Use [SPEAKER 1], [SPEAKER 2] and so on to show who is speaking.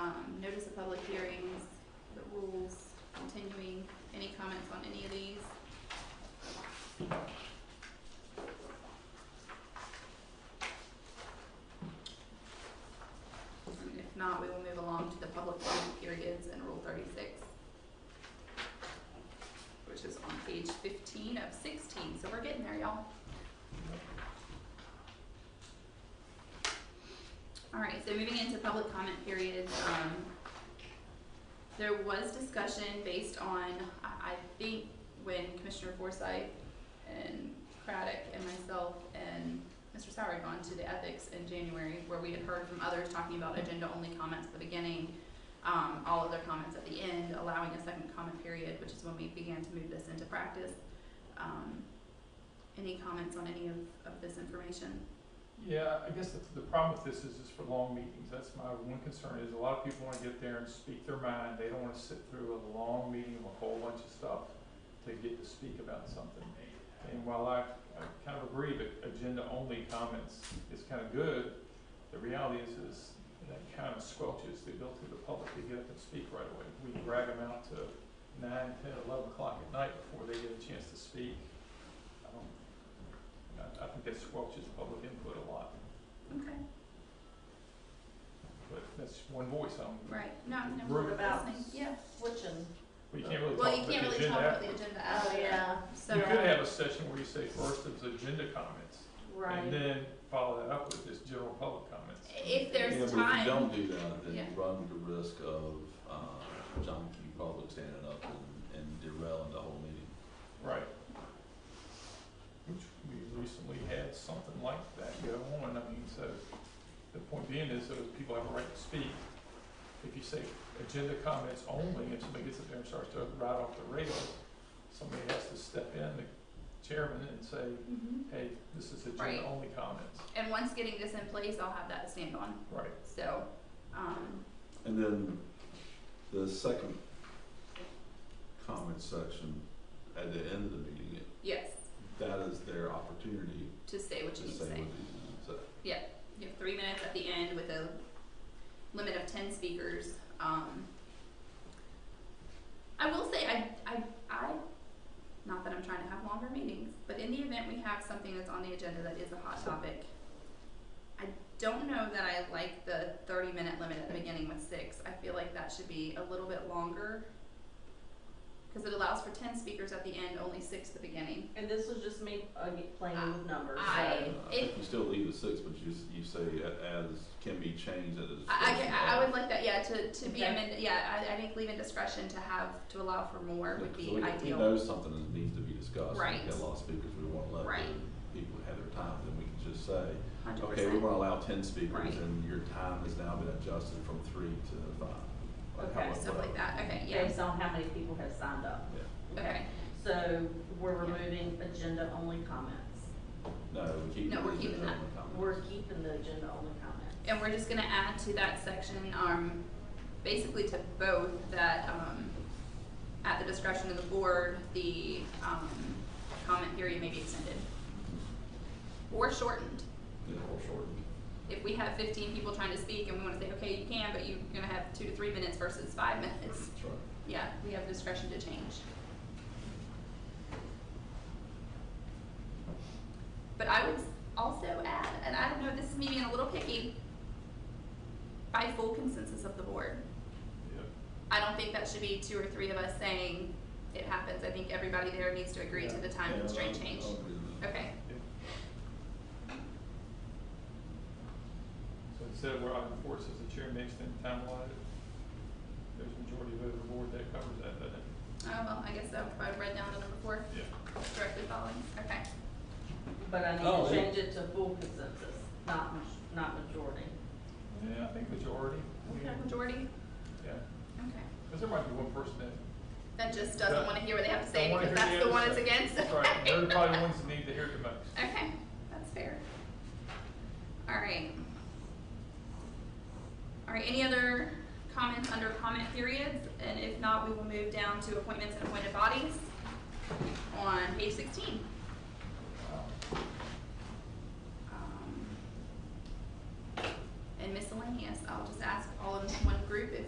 [SPEAKER 1] um, public hearings, the rules, continuing, any comments on any of these? And if not, we will move along to the public comment periods and Rule thirty-six, which is on page fifteen of sixteen, so we're getting there, y'all. All right, so moving into public comment period, um, there was discussion based on, I, I think, when Commissioner Forsythe and Craddock and myself and Mr. Sauer had gone to the ethics in January, where we had heard from others talking about agenda-only comments at the beginning, um, all other comments at the end, allowing a second comment period, which is when we began to move this into practice. Um, any comments on any of, of this information?
[SPEAKER 2] Yeah, I guess the, the problem with this is, is for long meetings, that's my one concern, is a lot of people wanna get there and speak their mind, they don't wanna sit through a long meeting with a whole bunch of stuff to get to speak about something. And while I, I kind of agree that agenda-only comments is kinda good, the reality is, is that kinda squelches the ability of the public to get up and speak right away. We drag them out to nine, ten, eleven o'clock at night before they get a chance to speak. I don't I, I think that squelches public input a lot,
[SPEAKER 1] Okay,
[SPEAKER 2] but that's one voice, um,
[SPEAKER 1] right, no, no,
[SPEAKER 2] What
[SPEAKER 1] we're
[SPEAKER 3] about-
[SPEAKER 1] listening, yeah.
[SPEAKER 3] Switching.
[SPEAKER 2] we can't really talk
[SPEAKER 1] Well, you
[SPEAKER 2] about the
[SPEAKER 1] can't
[SPEAKER 2] agenda.
[SPEAKER 1] really talk about
[SPEAKER 2] after.
[SPEAKER 1] the agenda
[SPEAKER 3] Oh,
[SPEAKER 1] after. So,
[SPEAKER 2] You could have a session where you say first is agenda comments, and
[SPEAKER 3] Right.
[SPEAKER 2] then follow that up with just general public comments.
[SPEAKER 1] if
[SPEAKER 4] Yeah, but
[SPEAKER 1] there's
[SPEAKER 4] if you
[SPEAKER 1] time,
[SPEAKER 4] don't do that, then you
[SPEAKER 1] Yeah.
[SPEAKER 4] run the risk of, uh, John Q. Public standing up and, and derailing the whole meeting.
[SPEAKER 2] Right. Which we recently had something like that go on, I mean, so, the point being is those people have a right to speak. If you say agenda comments only, and somebody gets up there and starts to ride off the rails, somebody has to step in, the chairman, and say,
[SPEAKER 1] Mhm.
[SPEAKER 2] hey, this is
[SPEAKER 1] Right.
[SPEAKER 2] agenda only comments.
[SPEAKER 1] and once getting this in place, I'll have that to stand on,
[SPEAKER 2] Right.
[SPEAKER 1] so, um,
[SPEAKER 4] And then the second comment section at the end of the meeting, it-
[SPEAKER 1] yes,
[SPEAKER 4] that is their opportunity
[SPEAKER 1] to say
[SPEAKER 4] to
[SPEAKER 1] what you need
[SPEAKER 4] say
[SPEAKER 1] to
[SPEAKER 4] what they
[SPEAKER 1] say.
[SPEAKER 4] need to say.
[SPEAKER 1] You have three minutes at the end with a limit of ten speakers. Um, I will say, I, I, I, not that I'm trying to have longer meetings, but in the event we have something that's on the agenda that is a hot topic, I don't know that I like the thirty minute limit at the beginning with six. I feel like that should be a little bit longer. Cause it allows for ten speakers at the end, only six at the beginning.
[SPEAKER 3] And this was just me uh, playing with numbers,
[SPEAKER 1] I-
[SPEAKER 3] so.
[SPEAKER 4] Uh, I
[SPEAKER 1] If-
[SPEAKER 4] think you still leave at six, but you, s- you say a- as can be changed at a discretion.
[SPEAKER 1] I, I, can- I I would
[SPEAKER 4] of-
[SPEAKER 1] like that, yeah, to, to be
[SPEAKER 3] Okay.
[SPEAKER 1] amended, yeah, I, I think leaving discretion to have, to allow for more would
[SPEAKER 4] So
[SPEAKER 1] be
[SPEAKER 4] we- We
[SPEAKER 1] ideal.
[SPEAKER 4] know something that needs to be discussed,
[SPEAKER 1] Right.
[SPEAKER 4] we've got a lot of speakers, we wanna let
[SPEAKER 1] Right.
[SPEAKER 4] the people have their time, then we can just say,
[SPEAKER 1] Hundred
[SPEAKER 4] Okay, we
[SPEAKER 1] percent.
[SPEAKER 4] wanna allow ten
[SPEAKER 1] Right.
[SPEAKER 4] speakers, and your time has now been adjusted from three to five. or
[SPEAKER 3] Okay,
[SPEAKER 4] however-
[SPEAKER 1] Stuff like that, okay, yeah,
[SPEAKER 3] Based on how many people have signed up.
[SPEAKER 4] Yeah.
[SPEAKER 1] okay,
[SPEAKER 3] So we're removing agenda-only comments.
[SPEAKER 4] No, we keep.
[SPEAKER 1] No, we're
[SPEAKER 4] the
[SPEAKER 1] keeping that.
[SPEAKER 4] general comment.
[SPEAKER 3] We're keeping the agenda-only comments.
[SPEAKER 1] and we're just gonna add to that section, um, basically to both that, um, at the discretion of the board, the, um, comment period may be extended. Or shortened,
[SPEAKER 4] Yeah, or shortened.
[SPEAKER 1] if we have fifteen people trying to speak and we wanna say, okay, you can, but you're gonna have two to three minutes versus five minutes.
[SPEAKER 4] That's right.
[SPEAKER 1] Yeah, we have discretion to change. But I would also add, and I don't know, this is me being a little picky, by full consensus of the board.
[SPEAKER 2] Yeah.
[SPEAKER 1] I don't think that should be two or three of us saying it happens. I think everybody there needs to agree to the time
[SPEAKER 4] Yeah,
[SPEAKER 1] constraint
[SPEAKER 4] I'll-
[SPEAKER 1] change.
[SPEAKER 4] I'll agree with that.
[SPEAKER 1] Okay,
[SPEAKER 2] So instead of where item four says the chair may extend the time allotted, there's a majority vote of the board that covers that, doesn't it?
[SPEAKER 1] oh, well, I guess so, if I read down the number four,
[SPEAKER 2] Yeah.
[SPEAKER 1] directly following, okay.
[SPEAKER 3] But I
[SPEAKER 4] Oh,
[SPEAKER 3] need to
[SPEAKER 4] yeah.
[SPEAKER 3] change it to full consensus, not, maj- not majority.
[SPEAKER 2] Yeah, I think majority, I mean,
[SPEAKER 1] Majority,
[SPEAKER 2] yeah,
[SPEAKER 1] okay.
[SPEAKER 2] cause there might be one person that
[SPEAKER 1] That just doesn't
[SPEAKER 2] Don't-
[SPEAKER 1] wanna hear what they have to
[SPEAKER 2] don't
[SPEAKER 1] say
[SPEAKER 2] wanna
[SPEAKER 1] because
[SPEAKER 2] hear
[SPEAKER 1] that's the
[SPEAKER 2] other
[SPEAKER 1] one that's
[SPEAKER 2] side.
[SPEAKER 1] against.
[SPEAKER 2] That's right, they're probably the ones that need to hear it the most.
[SPEAKER 1] Okay, that's fair. All right. All right, any other comments under comment periods? And if not, we will move down to appointments and appointed bodies on page sixteen. Um, And miscellaneous, I'll just ask all in one group if